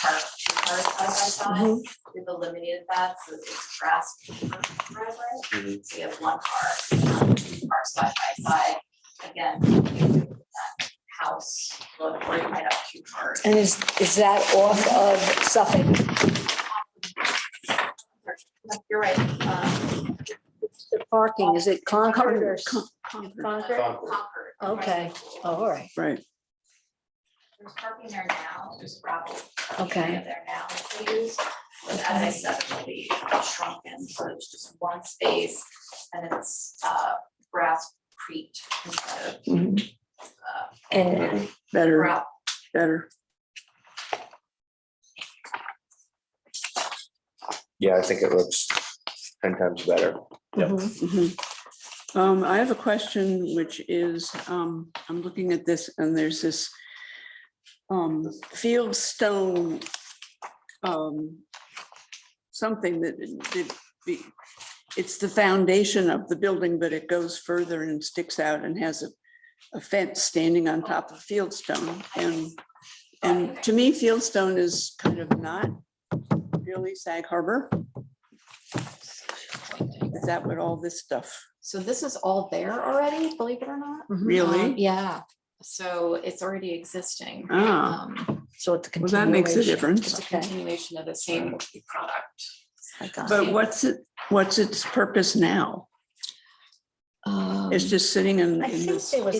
park, two cars side by side. We've eliminated that, so it's grass paper driveway. So you have one car, um, two cars side by side. Again, that house, look, where you might have two cars. And is, is that off of Suffolk? You're right. um, The parking, is it Concord or? Con- Concord. Okay. Oh, all right. Right, There's parking there now, there's gravel. parking Okay. area There now, that they use, but as I said, it'll be shrunken, so it's just one space, and it's, uh, grass creek instead of, Mhm. uh, And better, gravel. better. Yeah, I think it looks ten times better. mhm. Mhm. Um, I have a question, which is, um, I'm looking at this and there's this um, field stone um, something that, that be, it's the foundation of the building, but it goes further and sticks out and has a a fence standing on top of fieldstone and, and to me, fieldstone is kind of not really Sag Harbor. Is that what all this stuff? So this is all there already, believe it or not. mm-hmm. Um, Really? Yeah, so it's already existing. Ah. Um, So it's a Well, that makes a continuation. It's difference. a Okay. continuation of the same product. I got it. But what's it, what's its purpose now? Um, It's just sitting in. I in think this- there was-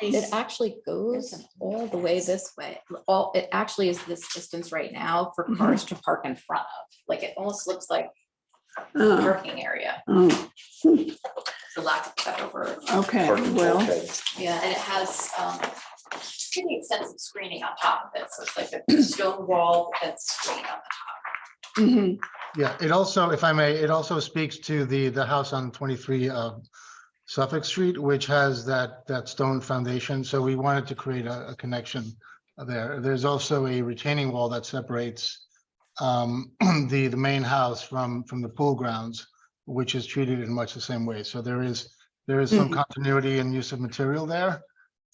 It actually goes all the way this way. All, it actually is this distance right now for Mm-hmm. cars to park in front of. Like it almost looks like a Oh, parking area, oh, for lack of a better word. Okay, Parking well, bulkhead. Yeah, And it has, um, pretty extensive screening on top of it, so it's like a stone wall that's screened on mhm, Yeah, it also, if I may, it also speaks to the, the house on 23 uh, Suffolk Street, which has that, that stone foundation. So we wanted to create a, a connection there. There's also a retaining wall that separates um, the, the main house from, from the pool grounds, which is treated in much the same way. So there is, there is some continuity and use of material there.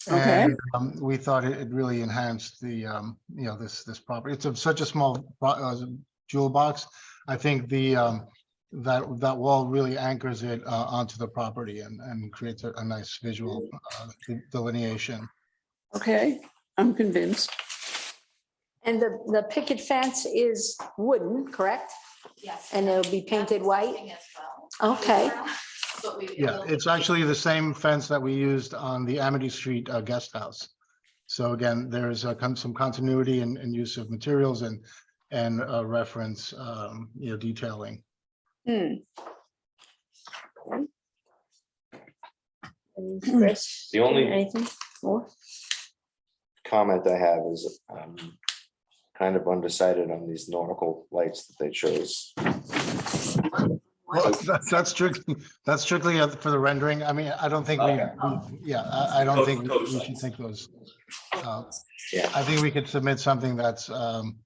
Okay. And um, we thought it it really enhanced the, um, you know, this, this property. It's of such a small pro- uh, jewel box. I think the, um, that, that wall really anchors it, uh, onto the property and, and creates a, a nice visual, uh, de- delineation. okay, I'm convinced. And the, the picket fence is wooden, correct? top, yes. And it'll be painted That's white? existing as well. Okay. But we. Yeah, it's actually the same fence that we used on the Amity Street, uh, guest house. So again, there's, uh, con- some continuity and, and use of materials and, and, uh, reference, um, you know, detailing. Hmm, And Chris, The only- Anything more? Comment I have is, um, kind of undecided on these nautical lights that they chose. Well, that's, that's strictly, that's strictly uh, for the rendering. I mean, I don't think we, Okay. we- yeah, I, I don't Those- think we- those we should lights. think those. uh, Yeah. I think we could submit something that's, um,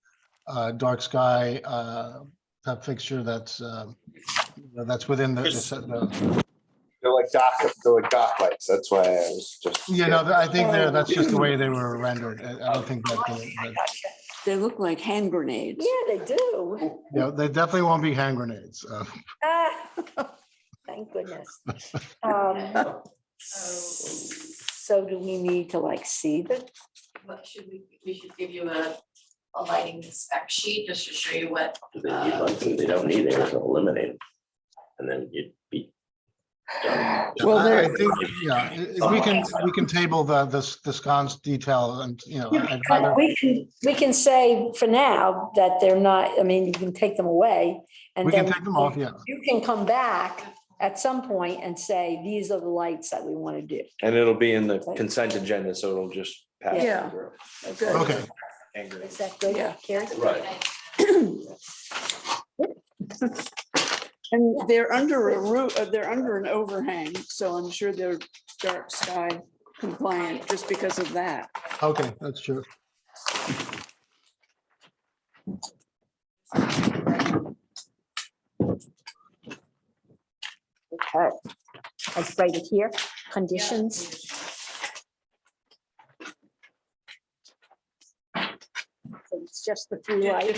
uh, dark sky, uh, type fixture that's, um, that's within the- the, Chris. set- the, They're like dock, they're like dock lights. That's why I was just. you know, I think there, that's just the way they Oh. were rendered. I I don't think that, they- that- they look like hand grenades. Yeah, they do. you know, they definitely won't be hand grenades. uh, Ah, Thank goodness. Um, So So do we need to like see the, what should we, we should give you a, a lighting spec sheet just to show you what, They need lights and they don't need it, so eliminate it. And then you'd be done. Well, I- I there- think, yeah, if we can, we can table the, the, the sconce detail and, you know. I'd rather- we can, we can say for now that they're not, I mean, you can take them away and We can then take them off, yeah. you can come back at some point and say, these are the lights that we want to do. And it'll be in the consent agenda, so it'll just pass. Yeah. through. Good. Okay. Angry. Is that good, Yeah. Carrie? Right. And they're under a roof, they're under an overhang, so I'm sure they're dark sky compliant just because of that. Okay, that's true. Okay. That's right here, conditions. just the few lights.